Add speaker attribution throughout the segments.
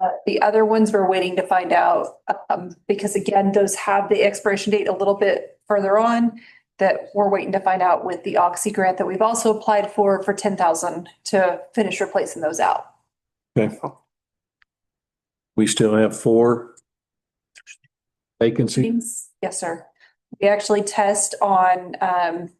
Speaker 1: Uh, The other ones we're waiting to find out, um, because again, those have the expiration date a little bit further on that we're waiting to find out with the Oxy grant that we've also applied for, for ten thousand to finish replacing those out.
Speaker 2: Okay. We still have four vacancies.
Speaker 1: Yes, sir. We actually test on um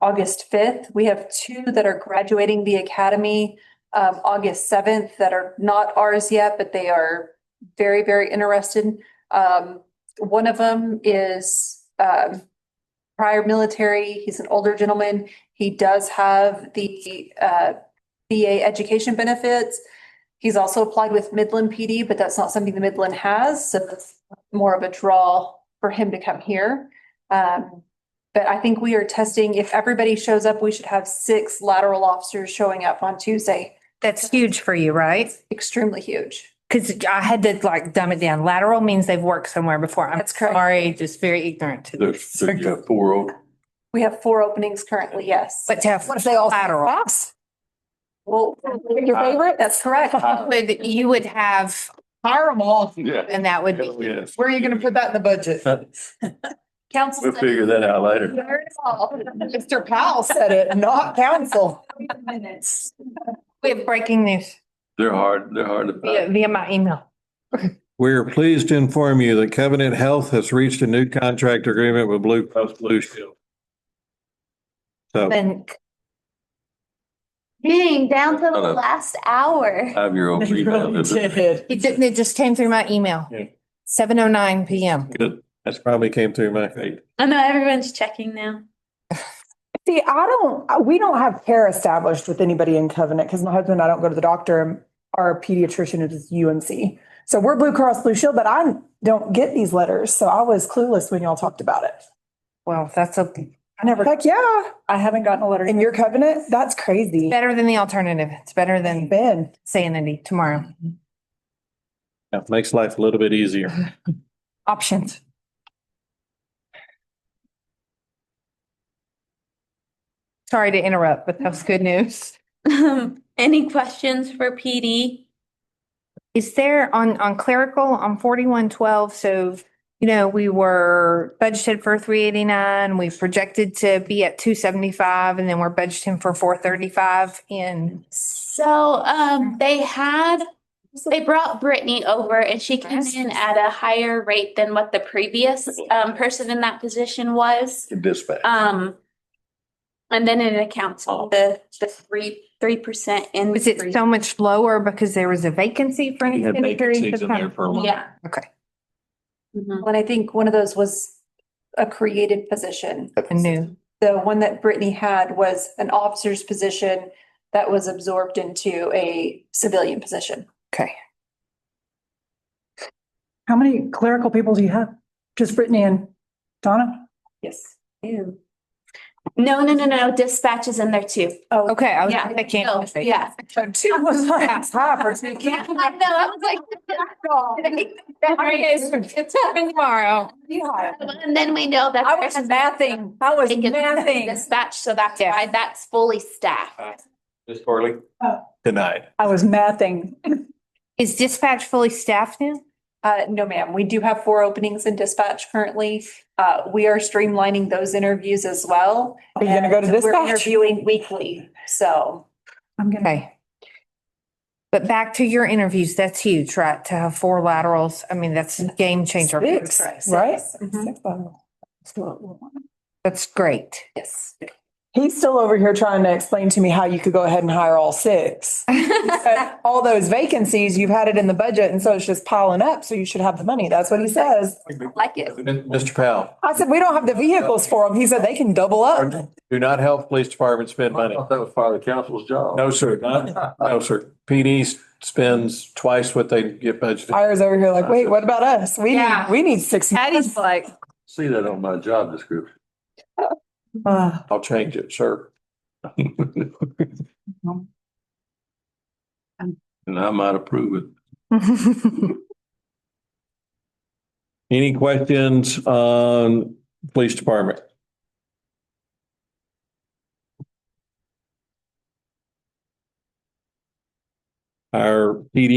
Speaker 1: August fifth. We have two that are graduating the academy um August seventh that are not ours yet, but they are very, very interested. Um, one of them is um prior military. He's an older gentleman. He does have the uh BA education benefits. He's also applied with Midland PD, but that's not something the Midland has, so that's more of a draw for him to come here. Um, but I think we are testing, if everybody shows up, we should have six lateral officers showing up on Tuesday.
Speaker 3: That's huge for you, right?
Speaker 1: Extremely huge.
Speaker 3: Because I had to like dumb it down. Lateral means they've worked somewhere before. I'm
Speaker 1: That's correct.
Speaker 3: sorry, just very ignorant to
Speaker 4: There's,
Speaker 3: this.
Speaker 4: you got four old,
Speaker 1: We have four openings currently, yes.
Speaker 3: But to have lateral,
Speaker 1: Well, your
Speaker 4: Uh,
Speaker 1: favorite? That's correct.
Speaker 3: would- you would have,
Speaker 5: Hire them all.
Speaker 4: yeah. Uh,
Speaker 3: and that would be,
Speaker 4: Yes.
Speaker 5: Where are you gonna put that in the budget?
Speaker 1: Council.
Speaker 4: We'll figure that out later.
Speaker 1: Heard it all.
Speaker 5: Mr. Powell said it, not council.
Speaker 1: Minutes.
Speaker 3: we have breaking news
Speaker 4: They're hard, they're hard to
Speaker 3: via,
Speaker 4: find.
Speaker 3: via my email.
Speaker 2: We are pleased to inform you that Covenant Health has reached a new contract agreement with Blue Cross Blue Shield.
Speaker 4: oh.
Speaker 2: So
Speaker 3: Then
Speaker 6: Dang, down to
Speaker 4: Shut
Speaker 6: the
Speaker 4: up.
Speaker 6: last hour.
Speaker 4: Five-year-old.
Speaker 5: They really
Speaker 4: Good,
Speaker 5: did.
Speaker 3: it didn't, it just came through my email.
Speaker 2: Yeah.
Speaker 3: Seven oh nine PM.
Speaker 2: that's probably came through my feed.
Speaker 6: I know everyone's checking now.
Speaker 5: See, I don't, I- we don't have care established with anybody in Covenant because my husband and I don't go to the doctor. and Our pediatrician is UMC. So we're Blue Cross Blue Shield, but I don't get these letters. So I was clueless when y'all talked about it.
Speaker 3: Well, that's a,
Speaker 5: I never. Heck, yeah. I haven't gotten a letter. In your Covenant? That's crazy.
Speaker 3: better than the alternative. It's better than
Speaker 5: Ben.
Speaker 3: sanity tomorrow.
Speaker 2: That makes life a little bit easier.
Speaker 3: Options. Sorry to interrupt, but that was good news.
Speaker 6: Um, any questions for PD?
Speaker 3: Is there on, on clerical, on forty-one twelve, so, you know, we were budgeted for three eighty-nine, we projected to be at two seventy-five, and then we're budgeting for four thirty-five in.
Speaker 6: So, um, they had, they brought Brittany over and she came in at a higher rate than what the previous, um, person in that position was.
Speaker 4: Dispatch.
Speaker 6: Um, and then it accounts for the, the three, three percent in.
Speaker 3: Was it so much lower because there was a vacancy for an
Speaker 2: You had
Speaker 3: extended period
Speaker 2: vacancies
Speaker 3: of
Speaker 2: in there
Speaker 3: time?
Speaker 2: for a while.
Speaker 6: Yeah.
Speaker 3: Okay.
Speaker 6: Mhm.
Speaker 1: And I think one of those was a created position.
Speaker 3: I knew.
Speaker 1: The one that Brittany had was an officer's position that was absorbed into a civilian position.
Speaker 3: Okay.
Speaker 7: How many clerical people do you have? Just Brittany and Donna?
Speaker 1: Yes.
Speaker 6: Ew. No, no, no, no, dispatch is in there too.
Speaker 1: Oh,
Speaker 3: Okay, I was,
Speaker 6: Yeah.
Speaker 3: I
Speaker 6: Oh,
Speaker 3: can't.
Speaker 6: Yeah.
Speaker 5: Two was like, it's high for two.
Speaker 6: Yeah, I know, I was like.
Speaker 3: It's happening tomorrow.
Speaker 6: And then we know that.
Speaker 1: I was mathing. I was
Speaker 6: It gets
Speaker 1: mathing.
Speaker 6: Dispatch, so that's
Speaker 3: Yeah.
Speaker 6: why that's fully staffed.
Speaker 4: Ms. Farley?
Speaker 2: Denied.
Speaker 7: I was mathing.
Speaker 3: Is dispatch fully staffed now?
Speaker 1: Uh, no, ma'am. We do have four openings in dispatch currently. Uh, we are streamlining those interviews as well.
Speaker 5: Are you gonna go to
Speaker 1: And We're
Speaker 5: dispatch?
Speaker 1: interviewing weekly, so.
Speaker 7: I'm gonna,
Speaker 3: Okay. But back to your interviews, that's huge, right? To have four laterals, I mean, that's a game changer.
Speaker 5: Six, Mm-hmm. right?
Speaker 1: Mhm.
Speaker 5: Six of them. Still at one.
Speaker 3: That's great.
Speaker 1: Yes.
Speaker 5: He's still over here trying to explain to me how you could go ahead and hire all six. But All those vacancies, you've had it in the budget and so it's just piling up, so you should have the money. That's what he says.
Speaker 1: Like it.
Speaker 2: Mr. Powell,
Speaker 5: I said, we don't have the vehicles for them. He said they can double up.
Speaker 2: do not help police department spend money.
Speaker 4: That was part of the council's job.
Speaker 2: No, sir. Not- No, sir. PD spends twice what they get budgeted.
Speaker 5: Ira's over here like, wait, what about us? We need,
Speaker 3: Yeah.
Speaker 5: we need six.
Speaker 3: Patty's like.
Speaker 4: See that on my job description.
Speaker 5: Uh,
Speaker 2: I'll change it, sir.
Speaker 4: And I might approve it.
Speaker 2: Any questions on police department? our PD